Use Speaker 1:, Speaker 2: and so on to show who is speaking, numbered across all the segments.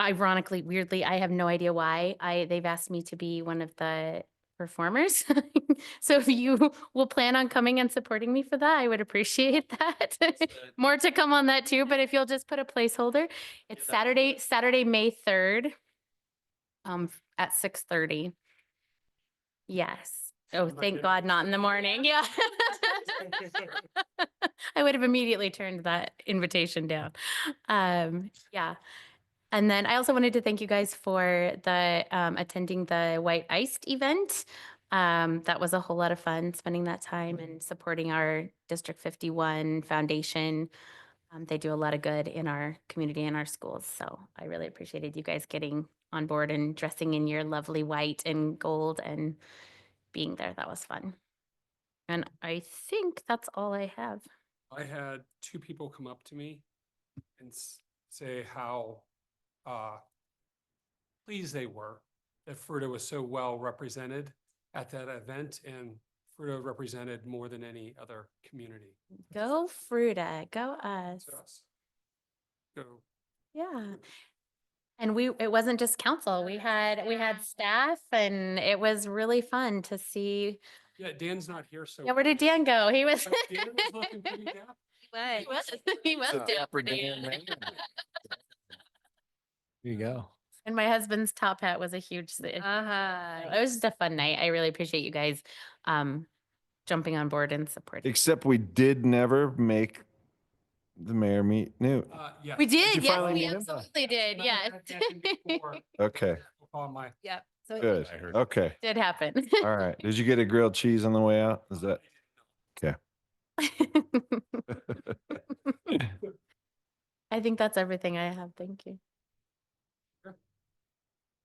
Speaker 1: ironically, weirdly, I have no idea why I, they've asked me to be one of the performers. So if you will plan on coming and supporting me for that, I would appreciate that. More to come on that too, but if you'll just put a placeholder, it's
Speaker 2: Yeah.
Speaker 1: Saturday, Saturday, May third. Um, at six thirty. Yes. Oh,
Speaker 2: Sounds like
Speaker 1: thank
Speaker 2: it.
Speaker 1: God, not in the morning. Yeah. I would have immediately turned that invitation down. Um, yeah. And then I also wanted to thank you guys for the um, attending the White Iced event. Um, that was a whole lot of fun spending that time and supporting our District 51 Foundation. Um, they do a lot of good in our community and our schools. So I really appreciated you guys getting on board and dressing in your lovely white and gold and being there. That was fun. And I think that's all I have.
Speaker 2: I had two people come up to me and s- say how uh pleased they were that Fruta was so well represented at that event and Fruta represented more than any other community
Speaker 1: Go Fruta, go us.
Speaker 2: to us. So
Speaker 1: Yeah. And we, it wasn't just council. We had, we had staff and it was really fun to see.
Speaker 2: Yeah, Dan's not here, so.
Speaker 1: Yeah, where did Dan go? He was.
Speaker 2: Uh, Dan was looking pretty dap-
Speaker 1: He was, he was
Speaker 3: It's a
Speaker 1: down
Speaker 3: proper
Speaker 1: there.
Speaker 3: Dan man. There you go.
Speaker 1: And my husband's top hat was a huge, si-
Speaker 2: Ah.
Speaker 1: it
Speaker 4: Uh-huh.
Speaker 1: was just a fun night. I really appreciate you guys, um, jumping on board and supporting.
Speaker 3: Except we did never make the mayor meet Newt.
Speaker 2: uh, yeah.
Speaker 1: We
Speaker 3: you
Speaker 1: did, yes,
Speaker 3: finally
Speaker 1: we
Speaker 3: meet him?
Speaker 1: absolutely did,
Speaker 2: Remember
Speaker 1: yes.
Speaker 2: that happened before
Speaker 3: Okay,
Speaker 2: On my.
Speaker 4: Yep. So it-
Speaker 3: good. Okay,
Speaker 1: Did happen.
Speaker 3: all right. Did you get a grilled cheese on the way out? Is that?
Speaker 1: I think that's everything I have. Thank you.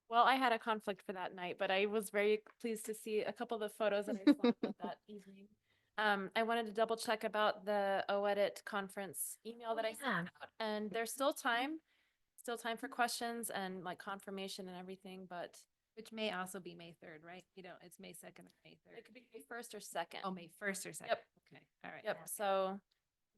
Speaker 5: Well, I had a conflict for that night, but I was very pleased to see a couple of the photos that I saw about that evening. Um, I wanted to double check about the OEdit conference email that I
Speaker 1: Yeah.
Speaker 5: sent out, and there's still time, still time for questions and like confirmation and everything, but
Speaker 4: Which may also be May third, right? You know, it's May second or May
Speaker 5: it could
Speaker 4: third.
Speaker 5: be May first or second.
Speaker 4: Oh, May first or second. Okay, all right.
Speaker 5: Yep, so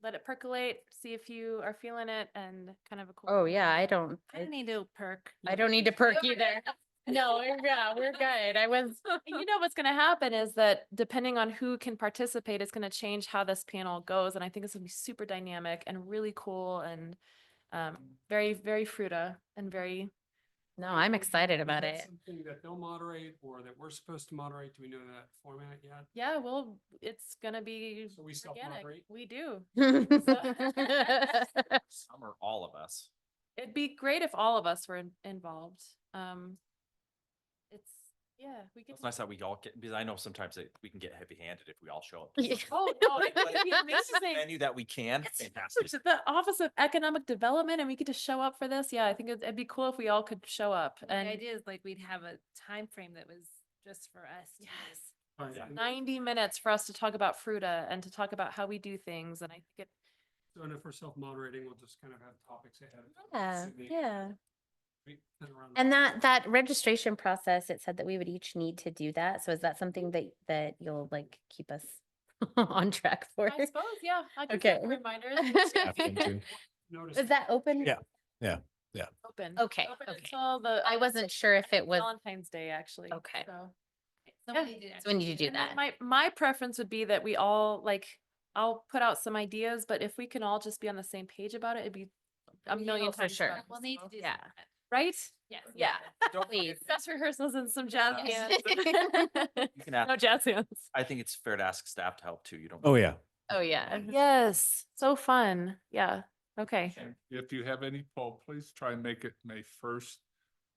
Speaker 5: let it percolate, see if you are feeling it and kind of a. cool
Speaker 1: Oh,
Speaker 5: down.
Speaker 1: yeah, I don't,
Speaker 4: I don't
Speaker 1: I
Speaker 4: need to perk.
Speaker 1: I don't need to perk either. No, we're- yeah, we're good. I was,
Speaker 5: And you know what's going to happen is that depending on who can participate, it's going to change how this panel goes. And I think it's going to be super dynamic and really cool and um, very, very fruta and very.
Speaker 1: no, I'm excited
Speaker 2: Is
Speaker 1: about
Speaker 2: that
Speaker 1: it.
Speaker 2: Something that they'll moderate or that we're supposed to moderate, do we know that format yet?
Speaker 5: Yeah, well, it's going to be.
Speaker 2: So we self-moderate?
Speaker 5: organic. We do.
Speaker 6: Some or all of us.
Speaker 5: It'd be great if all of us were in- involved. Um, it's yeah, we get.
Speaker 6: It's nice that we all get, because I know sometimes it, we can get heavy handed if we all show up. to
Speaker 1: Yeah.
Speaker 6: something.
Speaker 5: Oh no, it
Speaker 6: But
Speaker 5: would be
Speaker 6: if this is the
Speaker 5: amazing.
Speaker 6: Venue that we can.
Speaker 5: It's
Speaker 6: fantastic.
Speaker 5: huge. The Office of Economic Development, and we get to show up for this. Yeah, I think it'd, it'd be cool if we all could show up.
Speaker 4: The
Speaker 5: And
Speaker 4: idea is like we'd have a time frame that was just for us. to
Speaker 5: yes,
Speaker 2: Right,
Speaker 6: Yeah.
Speaker 2: and
Speaker 5: ninety minutes for us to talk about Fruta and to talk about how we do things. And I think it,
Speaker 2: So and if we're self-moderating, we'll just kind of have topics ahead. of time,
Speaker 1: Yeah,
Speaker 2: so we-
Speaker 1: yeah.
Speaker 2: we can run
Speaker 1: And that, that registration process, it said that we would each need to do that. So is that something that, that you'll like keep us on track for?
Speaker 5: I suppose, yeah. I can set
Speaker 1: Okay.
Speaker 5: Reminders.
Speaker 2: notice
Speaker 1: Is that open?
Speaker 3: Yeah.
Speaker 5: Open.
Speaker 1: Okay,
Speaker 5: Open
Speaker 1: okay.
Speaker 5: Until the.
Speaker 1: I
Speaker 5: uh,
Speaker 1: wasn't sure if it was,
Speaker 5: Valentine's Day, actually.
Speaker 1: Okay.
Speaker 5: So.
Speaker 4: Somebody did
Speaker 1: so we
Speaker 4: actually
Speaker 1: need to do
Speaker 5: And then
Speaker 1: that.
Speaker 5: My, my preference would be that we all like, I'll put out some ideas, but if we can all just be on the same page about it, it'd be a million
Speaker 1: for
Speaker 5: times
Speaker 1: sure.
Speaker 5: better,
Speaker 4: We'll need to do.
Speaker 1: Yeah.
Speaker 4: something.
Speaker 5: Right?
Speaker 4: Yes.
Speaker 1: Yeah.
Speaker 6: Don't forget,
Speaker 5: Dress rehearsals and some jazz
Speaker 1: Yes.
Speaker 5: hands.
Speaker 6: You can ask,
Speaker 5: No jazz hands.
Speaker 6: I think it's fair to ask staff to help too. You don't.
Speaker 3: Oh, yeah.
Speaker 1: Oh, yeah.
Speaker 5: Yes, so fun. Yeah, okay.
Speaker 7: If you have any poll, please try and make it May first.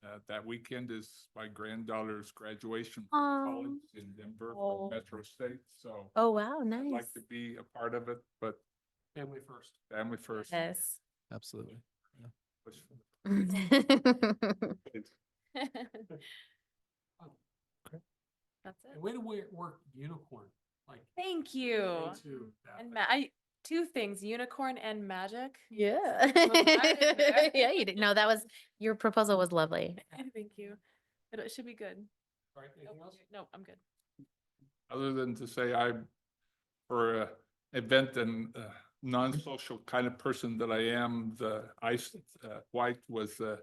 Speaker 7: Uh, that weekend is my granddaughter's graduation from college
Speaker 1: Um,
Speaker 7: in Denver
Speaker 5: Oh.
Speaker 7: from Metro State, so.
Speaker 1: oh, wow,
Speaker 7: I'd
Speaker 1: nice.
Speaker 7: like to be a part of it, but
Speaker 2: family first.
Speaker 7: family first.
Speaker 1: Yes.
Speaker 3: Absolutely.
Speaker 7: push for the kids.
Speaker 2: Oh,
Speaker 5: That's
Speaker 2: And
Speaker 5: it.
Speaker 2: way to wear, work unicorn, like.
Speaker 5: Thank you.
Speaker 2: into that,
Speaker 5: And
Speaker 2: but
Speaker 5: ma- I, two things, unicorn and magic.
Speaker 1: Yeah.
Speaker 5: there.
Speaker 1: Yeah, you didn't, no, that was, your proposal was lovely.
Speaker 5: Thank you. It it should be good.
Speaker 2: Right,
Speaker 1: Oh,
Speaker 2: anything
Speaker 5: Nope,
Speaker 2: else?
Speaker 5: No, I'm good.
Speaker 7: Other than to say I'm, for a event and uh, non-social kind of person that I am, the ice, uh, white was, uh,